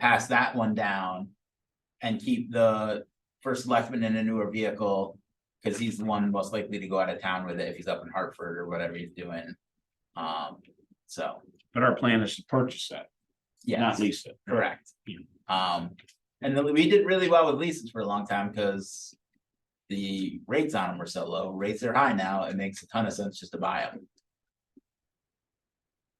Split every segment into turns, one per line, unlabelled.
pass that one down. And keep the first selectman in a newer vehicle, cause he's the one most likely to go out of town with it if he's up in Hartford or whatever he's doing. Um, so,
But our plan is to purchase that,
yeah,
not lease it.
correct.
Yeah.
Um, and then we did really well with leases for a long time, cause. The rates on them were so low, rates are high now, it makes a ton of sense just to buy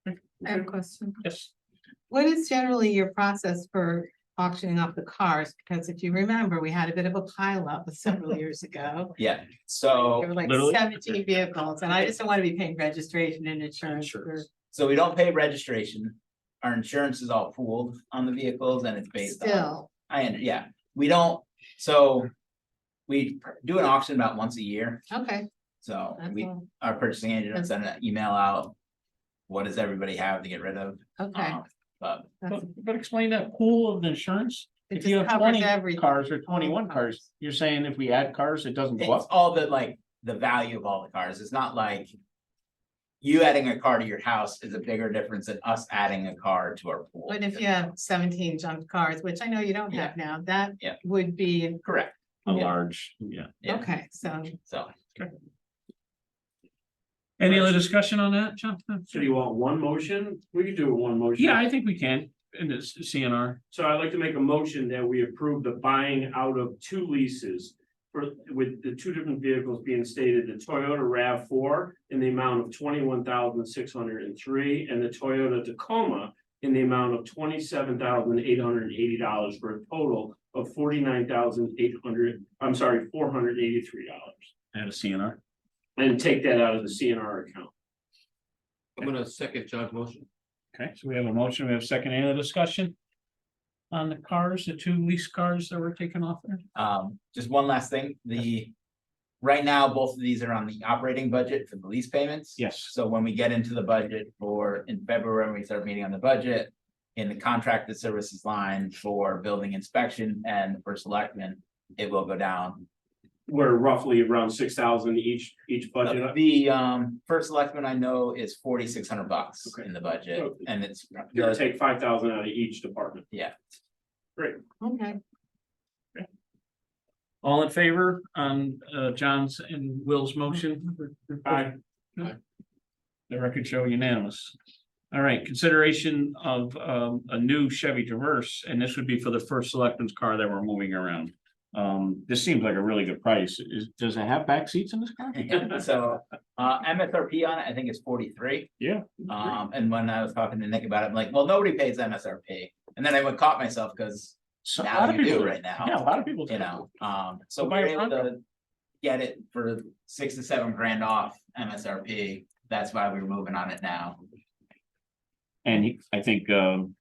them.
I have a question.
Yes.
Um, What is generally your process for auctioning off the cars? Because if you remember, we had a bit of a pileup several years ago.
Yeah, so.
There were like
Oh, Literally?
seventeen vehicles and I just don't want to be paying registration and insurance for
Insurance.
So we don't pay registration. Our insurance is all pooled on the vehicles and it's based on,
still.
I, under- yeah, we don't, so. We do an auction about once a year,
Okay,
so
that's
we,
all.
our purchasing agent will
That's-
send an email out. What does everybody have to get rid of?
Okay.
Um, But
that's-
But, but explain that pool of insurance.
It
If you
just
have
covers
twenty
everything.
cars or twenty-one cars, you're saying if we add cars, it doesn't go
it's
up?
all the, like, the value of all the cars, it's not like. You adding a car to your house is a bigger difference than us adding a car to our pool.
But if you have seventeen junk cars, which I know you don't have now, that
Yeah.
would be,
Correct,
A
yeah.
large, yeah.
yeah,
okay, so.
so.
Any other discussion on that, John?
So you want one motion? We could do it one motion.
Yeah, I think we can, in this CNR.
So I'd like to make a motion that we approve the buying out of two leases. For, with the two different vehicles being stated, the Toyota RAV four in the amount of twenty-one thousand six hundred and three. And the Toyota Tacoma in the amount of twenty-seven thousand eight hundred and eighty dollars for a total of forty-nine thousand eight hundred, I'm sorry, four hundred eighty-three dollars.
Add a CNR.
And take that out of the CNR account.
I'm gonna second John's motion.
Okay, so we have a motion, we have a second, any other discussion? On the cars, the two lease cars that were taken off there?
Um, just one last thing, the. Right now, both of these are on the operating budget for the lease payments.
Yes.
So when we get into the budget for, in February, when we start meeting on the budget. In the contracted services line for building inspection and for selectmen, it will go down.
We're roughly around six thousand each, each budget.
The um, first selectman I know is forty-six hundred bucks
Okay.
in the budget,
Oh,
Okay.
and it's.
Give or take five thousand out of each department.
Okay,
All in favor on uh John's and Will's motion?
Aye.
The record show unanimous. All right, consideration of um a new Chevy Traverse, and this would be for the first selectman's car that we're moving around. Um, this seems like a really good price. Is, does it have back seats in this car?
So, uh, MSRP on it, I think is forty-three.
Yeah.
Um, and when I was talking to Nick about it, I'm like, well, nobody pays MSRP. And then I would caught myself because
So a lot
now
of
you do
people,
right
yeah, a
now,
lot of people.
you know, um, so
Go
we
buy
we're
a
able
Bronco.
to get it for six to seven grand off MSRP. That's why we we're moving on it now.
And he, I think, um,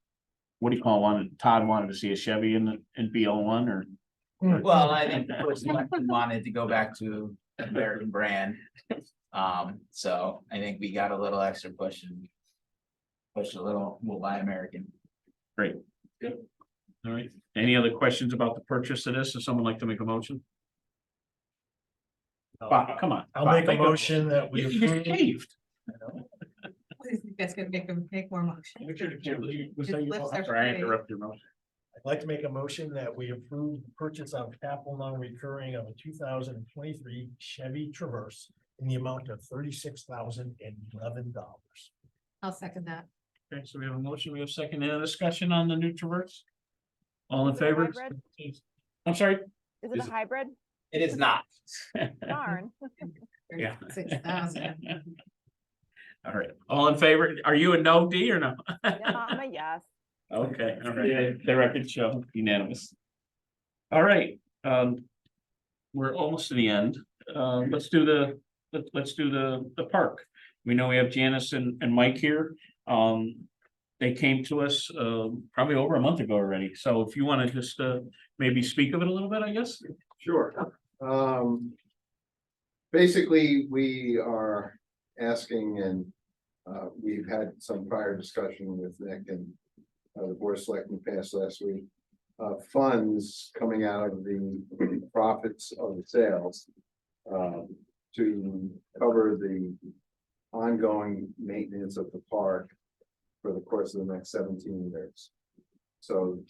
what do you call one? Todd wanted to see a Chevy in the, in BL one or?
Well, I think the first selectman wanted to go back to American brand. Um, so I think we got a little extra push and push a little, we'll buy American.
All right, any other questions about the purchase of this? Does someone like to make a motion? Bob, come on.
I'll
Bob,
make a motion that we
You you just
approve.
caved.
you guys gonna make them make more motion.
Was
Just
that your-
lifts our
Sorry, I
faith.
interrupted your motion.
I'd like to make a motion that we approve the purchase of capital non-recurring of a two thousand and twenty-three Chevy Traverse in the amount of thirty-six thousand and eleven dollars.
I'll second that.
Okay, so we have a motion, we have second, any other discussion on the new traverse? All in favor?
Hybrid?
I'm sorry,
Is it a
Is it-
hybrid?
It is not.
Darn.
Yeah.
Six thousand.
all right, all in favor, are you a no D or no?
Yeah, I'm a yes.
Okay, all
Yeah.
right, the record show unanimous. All right, um. We're almost to the end, um, let's do the, let- let's do the, the park. We know we have Janice and, and Mike here, um. They came to us, uh, probably over a month ago already, so if you wanna just, uh, maybe speak of it a little bit, I guess.
Sure. Um, basically, we are asking and, uh, we've had some prior discussion with Nick and uh, the board of selectmen passed last week, uh, funds coming out of the profits of the sales um, to cover the ongoing maintenance of the park for the course of the next seventeen years. So